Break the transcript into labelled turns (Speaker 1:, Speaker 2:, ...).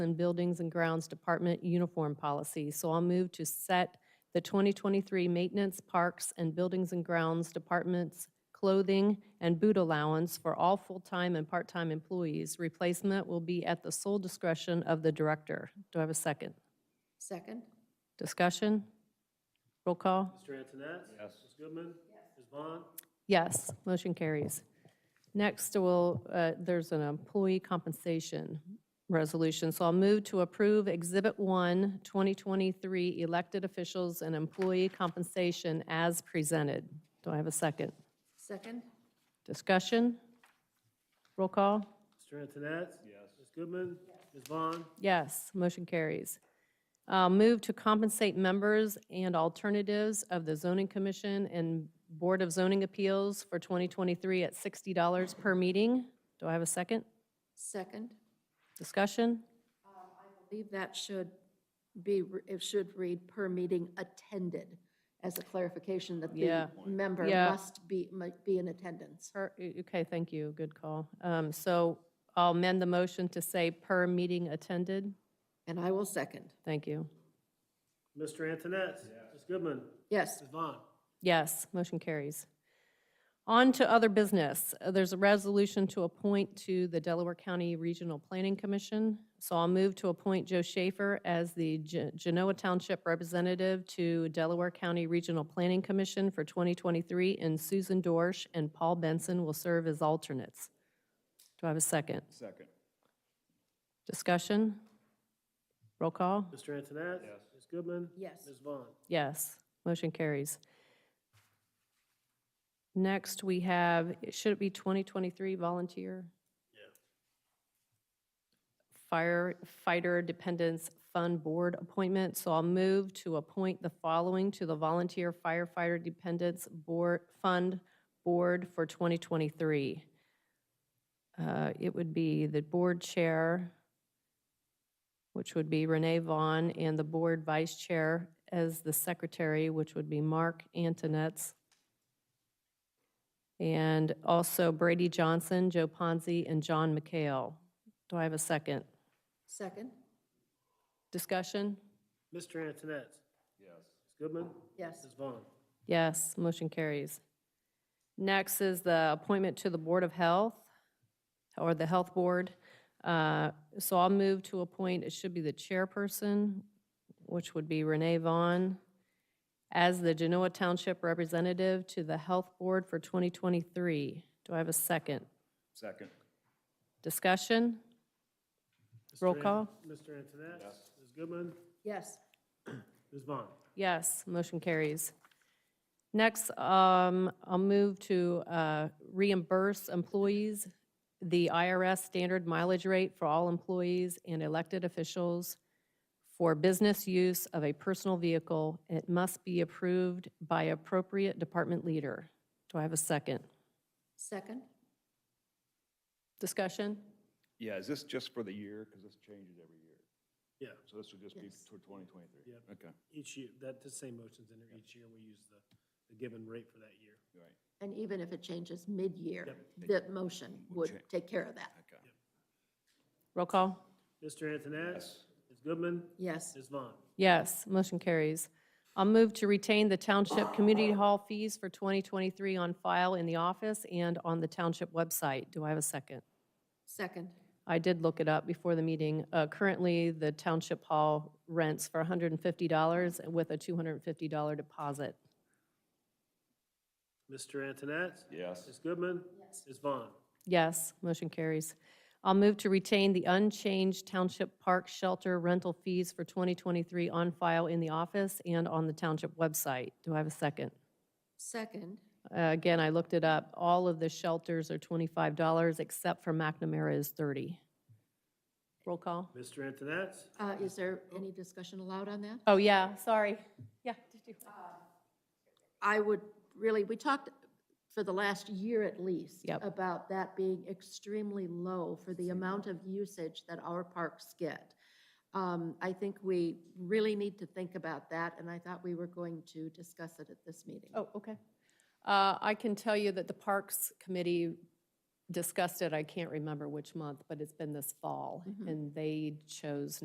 Speaker 1: and Buildings and Grounds Department uniform policy. So I'll move to set the 2023 Maintenance, Parks, and Buildings and Grounds Department's clothing and boot allowance for all full-time and part-time employees. Replacement will be at the sole discretion of the director. Do I have a second?
Speaker 2: Second?
Speaker 1: Discussion? Roll call?
Speaker 3: Mr. Antoinette? Yes. Ms. Goodman? Yes. Ms. Vaughn?
Speaker 1: Yes, motion carries. Next, we'll, uh, there's an employee compensation resolution, so I'll move to approve Exhibit 1, 2023 Elected Officials and Employee Compensation as presented. Do I have a second?
Speaker 2: Second?
Speaker 1: Discussion? Roll call?
Speaker 3: Mr. Antoinette? Yes. Ms. Goodman? Ms. Vaughn?
Speaker 1: Yes, motion carries. Uh, Move to compensate members and alternatives of the Zoning Commission and Board of Zoning Appeals for 2023 at $60 per meeting. Do I have a second?
Speaker 2: Second?
Speaker 1: Discussion?
Speaker 2: I believe that should be, it should read per meeting attended as a clarification that the
Speaker 1: Yeah.
Speaker 2: member
Speaker 1: Yeah.
Speaker 2: must be, might be in attendance.
Speaker 1: Per- o- Okay, thank you, good call. Um, So I'll amend the motion to say per meeting attended.
Speaker 2: And I will second.
Speaker 1: Thank you.
Speaker 3: Mr. Antoinette? Yes. Ms. Goodman?
Speaker 2: Yes,
Speaker 3: Ms. Vaughn?
Speaker 1: Yes, motion carries. On to other business. Uh, There's a resolution to appoint to the Delaware County Regional Planning Commission. So I'll move to appoint Joe Schaefer as the Ge- Genoa Township Representative to Delaware County Regional Planning Commission for 2023, and Susan Dorsch and Paul Benson will serve as alternates. Do I have a second?
Speaker 4: Second.
Speaker 1: Discussion? Roll call?
Speaker 3: Mr. Antoinette? Yes. Ms. Goodman?
Speaker 2: yes.
Speaker 3: Ms. Vaughn?
Speaker 1: Yes, motion carries. Next, we have, should it be 2023 volunteer?
Speaker 3: Yeah.
Speaker 1: Firefighter Dependents Fund Board appointment. So I'll move to appoint the following to the Volunteer Firefighter Dependents Board, Fund Board for 2023. Uh, It would be the board chair, which would be Renee Vaughn, and the board vice chair as the secretary, which would be Mark Antonetts. And also Brady Johnson, Joe Ponzi, and John McHale. Do I have a second?
Speaker 2: Second?
Speaker 1: Discussion?
Speaker 3: Mr. Antoinette?
Speaker 4: Yes.
Speaker 3: Ms. Goodman?
Speaker 2: Yes.
Speaker 3: Ms. Vaughn?
Speaker 1: Yes, motion carries. Next is the appointment to the Board of Health, or the Health Board. Uh, So I'll move to appoint, it should be the chairperson, which would be Renee Vaughn, as the Genoa Township Representative to the Health Board for 2023. Do I have a second?
Speaker 4: Second.
Speaker 1: Discussion?
Speaker 3: Mr.
Speaker 1: Roll
Speaker 3: An-
Speaker 1: call.
Speaker 3: Mr. Antoinette? Yes. Ms. Goodman?
Speaker 2: Yes.
Speaker 3: Ms. Vaughn?
Speaker 1: Yes, motion carries. Next, um, I'll move to uh, reimburse employees the IRS standard mileage rate for all employees and elected officials for business use of a personal vehicle. It must be approved by appropriate department leader. Do I have a second?
Speaker 2: Second?
Speaker 1: Discussion?
Speaker 4: Yeah, is this just for the year? Because this changes every year.
Speaker 3: Yeah,
Speaker 4: So this would just be
Speaker 2: Yes.
Speaker 4: for 2023?
Speaker 3: Yep.
Speaker 4: Okay,
Speaker 3: each year, that, the same motion's in there each year. We use the, the given rate for that year.
Speaker 4: right,
Speaker 2: And even if it changes mid-year,
Speaker 3: Yep.
Speaker 2: the motion would
Speaker 4: change.
Speaker 2: take care of that.
Speaker 4: okay.
Speaker 1: Roll call?
Speaker 3: Mr. Antoinette?
Speaker 4: Yes.
Speaker 3: Ms. Goodman?
Speaker 2: Yes,
Speaker 3: Ms. Vaughn?
Speaker 1: Yes, motion carries. I'll move to retain the Township Community Hall fees for 2023 on file in the office and on the Township website. Do I have a second?
Speaker 2: second.
Speaker 1: I did look it up before the meeting. Uh, Currently, the Township Hall rents for $150 with a $250 deposit.
Speaker 3: Mr. Antoinette?
Speaker 4: Yes.
Speaker 3: Ms. Goodman? Yes. Ms. Vaughn?
Speaker 1: Yes, motion carries. I'll move to retain the unchanged Township Park Shelter rental fees for 2023 on file in the office and on the Township website. Do I have a second?
Speaker 2: Second,
Speaker 1: Uh, Again, I looked it up. All of the shelters are twenty-five dollars, except for McNamara is thirty. Roll call.
Speaker 3: Mr. Antoinette?
Speaker 2: uh, is there any discussion allowed on that?
Speaker 1: Oh, yeah, sorry. Yeah. did you-
Speaker 2: I would really, we talked for the last year at least
Speaker 1: Yep.
Speaker 2: about that being extremely low for the amount of usage that our parks get. Um, I think we really need to think about that, and I thought we were going to discuss it at this meeting.
Speaker 1: Oh, okay. Uh, I can tell you that the Parks Committee Mm-hmm. discussed it, I can't remember which month, but it's been this fall, and they chose